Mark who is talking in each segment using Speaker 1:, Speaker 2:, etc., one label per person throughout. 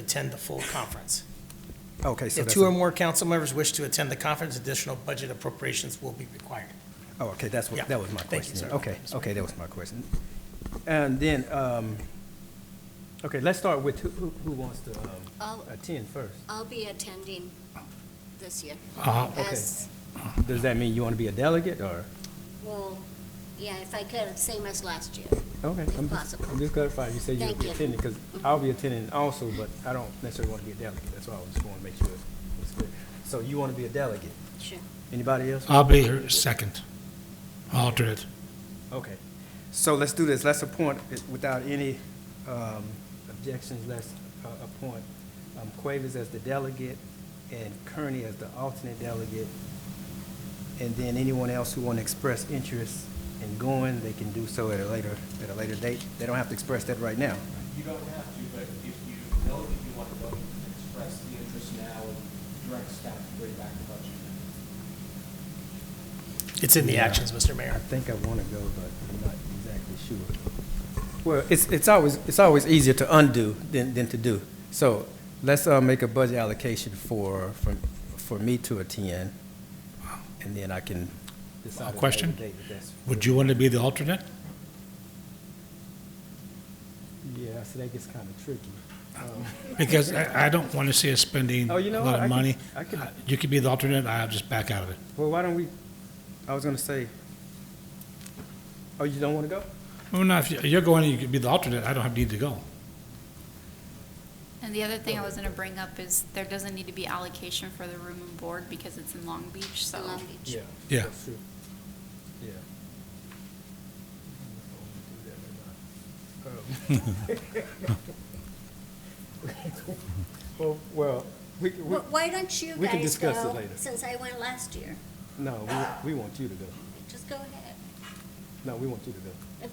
Speaker 1: attend the full conference.
Speaker 2: Okay, so
Speaker 1: If
Speaker 2: that's,
Speaker 1: two or
Speaker 2: a-
Speaker 1: more council members wish to attend the conference, additional budget appropriations will be required.
Speaker 2: oh, okay, that's
Speaker 1: Yeah,
Speaker 2: what, that was my
Speaker 1: thank you,
Speaker 2: question.
Speaker 1: sir.
Speaker 2: Okay, okay, that was my question. And then, um, okay, let's start with who, who who wants to, um,
Speaker 3: I'll-
Speaker 2: attend first?
Speaker 3: I'll be attending this year.
Speaker 2: okay.
Speaker 3: As,
Speaker 2: Does that mean you want to be a delegate, or?
Speaker 3: well, yeah, if I could, same as last year.
Speaker 2: Okay, I'm just,
Speaker 3: Possible.
Speaker 2: I'm just clarifying, you said you'll
Speaker 3: Thank
Speaker 2: be
Speaker 3: you.
Speaker 2: attending, because I'll be attending also, but I don't necessarily want to be a delegate, that's why I just want to make sure it's clear. So you want to be a delegate,
Speaker 3: Sure.
Speaker 2: anybody else?
Speaker 4: I'll be here second, alternate.
Speaker 2: Okay, so let's do this, let's appoint, it without any um, objections, let's uh, appoint um, Cuevas as the delegate and Kearney as the alternate delegate. And then anyone else who want to express interest in going, they can do so at a later, at a later date. They don't have to express that right now.
Speaker 5: You don't have to, but if you know that you want to vote, express the interest now and direct staff to bring back the budget.
Speaker 1: It's in the actions, Mr. Mayor.
Speaker 2: I think I want to go, but I'm not exactly sure. Well, it's, it's always, it's always easier to undo than, than to do. So let's, uh, make a budget allocation for, for, for me to attend, and then I can decide. at a
Speaker 4: Question?
Speaker 2: later date if that's-
Speaker 4: Would you want to be the alternate?
Speaker 2: Yeah, so that gets kind of tricky. Um,
Speaker 4: Because I, I don't want to see us spending a
Speaker 2: Oh, you know
Speaker 4: lot
Speaker 2: what? I
Speaker 4: of
Speaker 2: could-
Speaker 4: money.
Speaker 2: I could-
Speaker 4: Uh, You could be the alternate, I'll just back out of it.
Speaker 2: Well, why don't we, I was gonna say, oh, you don't want to go?
Speaker 4: Well, no, if you- you're going, you could be the alternate, I don't have need to go.
Speaker 6: And the other thing I was gonna bring up is there doesn't need to be allocation for the room and board because it's in Long Beach,
Speaker 2: Oh,
Speaker 6: so.
Speaker 3: Long Beach.
Speaker 4: Yeah.
Speaker 2: That's true. Yeah. Well, well, we, we,
Speaker 3: Wh- Why don't you
Speaker 2: we can
Speaker 3: guys
Speaker 2: discuss it
Speaker 3: go,
Speaker 2: later.
Speaker 3: since I went last year?
Speaker 2: no, we, we want you to go.
Speaker 3: Just go ahead.
Speaker 2: No, we want you to go. Um,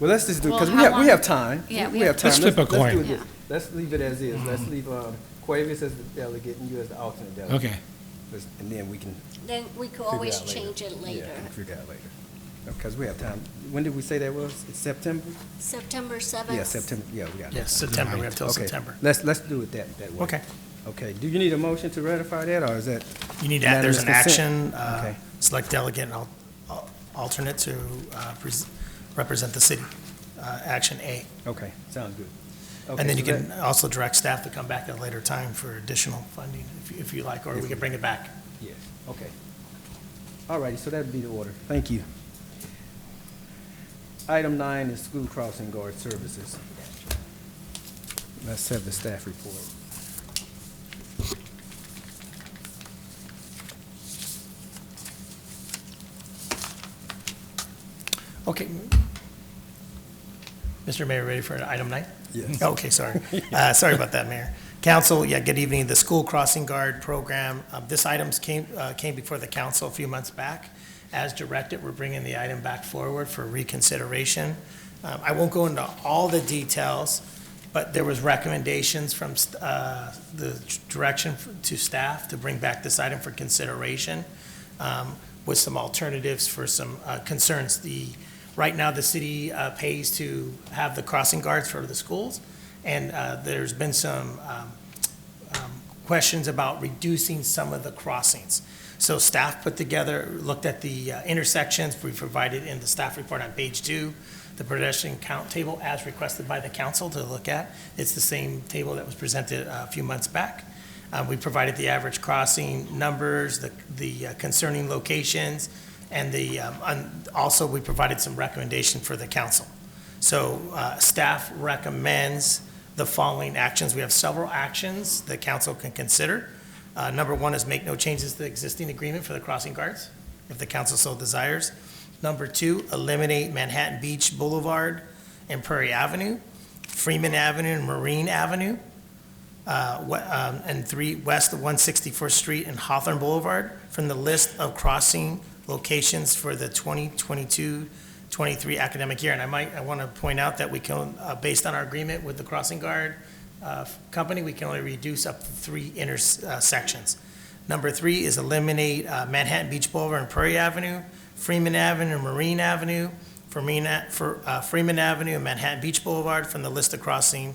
Speaker 2: Well, let's just do, because
Speaker 6: Well,
Speaker 2: we
Speaker 6: how
Speaker 2: have, we
Speaker 6: long-
Speaker 2: have time.
Speaker 6: Yeah,
Speaker 2: We
Speaker 6: we
Speaker 2: have
Speaker 6: have
Speaker 2: time.
Speaker 4: Let's flip a
Speaker 2: let's do
Speaker 4: coin. Mm-hmm.
Speaker 2: it.
Speaker 6: Yeah.
Speaker 2: Let's leave it as is. Let's leave, um, Cuevas as the delegate and you as the alternate delegate.
Speaker 4: Okay.
Speaker 2: Let's- And then we can
Speaker 3: Then we could
Speaker 2: figure
Speaker 3: always
Speaker 2: out later.
Speaker 3: change it later.
Speaker 2: Yeah, we can figure out later. Because we have time. When did we say that was? It's September?
Speaker 3: September seventh?
Speaker 2: Yeah, September, yeah, we got it.
Speaker 1: Yes, September, we have till
Speaker 2: Okay,
Speaker 1: September.
Speaker 2: Let's, let's do it that, that way.
Speaker 1: Okay.
Speaker 2: Okay, do you need a motion to ratify that, or is that,
Speaker 1: You need to add, there's an
Speaker 2: Unanimous
Speaker 1: action,
Speaker 2: consent.
Speaker 1: uh,
Speaker 2: Okay.
Speaker 1: select delegate and al- al- alternate to uh, pres- represent the city, uh, action A.
Speaker 2: okay, sounds good. Okay,
Speaker 1: And then you
Speaker 2: so
Speaker 1: can
Speaker 2: that-
Speaker 1: also direct staff to come back at a later time for additional funding if you- if you like, or we can bring it back.
Speaker 2: Yeah, okay. All righty, so that'd be the order. Thank you. Item nine is school crossing guard services. Let's have the staff report.
Speaker 1: Okay. Mr. Mayor, ready for item nine?
Speaker 2: Yes.
Speaker 1: Okay, sorry. Uh, Sorry about that, Mayor. Council, yeah, good evening. The School Crossing Guard Program, um, this items came, uh, came before the council a few months back. As directed, we're bringing the item back forward for reconsideration. Um, I won't go into all the details, but there was recommendations from uh, the direction to staff to bring back this item for consideration um, with some alternatives for some uh, concerns. The, right now, the city uh, pays to have the crossing guards for the schools, and uh, there's been some um, um, questions about reducing some of the crossings. So staff put together, looked at the uh, intersections, we provided in the staff report on page two, the pedestrian count table as requested by the council to look at. It's the same table that was presented uh, a few months back. Uh, We provided the average crossing numbers, the the uh, concerning locations, and the, um, un- also, we provided some recommendation for the council. So uh, staff recommends the following actions. We have several actions the council can consider. Uh, Number one is make no changes to the existing agreement for the crossing guards, if the council so desires. Number two, eliminate Manhattan Beach Boulevard and Prairie Avenue, Freeman Avenue and Marine Avenue, uh, we- um, and three, west of 164th Street and Hawthorne Boulevard from the list of crossing locations for the 2022-23 academic year. And I might, I want to point out that we can, uh, based on our agreement with the crossing guard uh, company, we can only reduce up to three intersections. Number three is eliminate uh, Manhattan Beach Boulevard and Prairie Avenue, Freeman Avenue and Marine Avenue Freeman, for, uh, Freeman Avenue and Manhattan Beach Boulevard from the list of crossing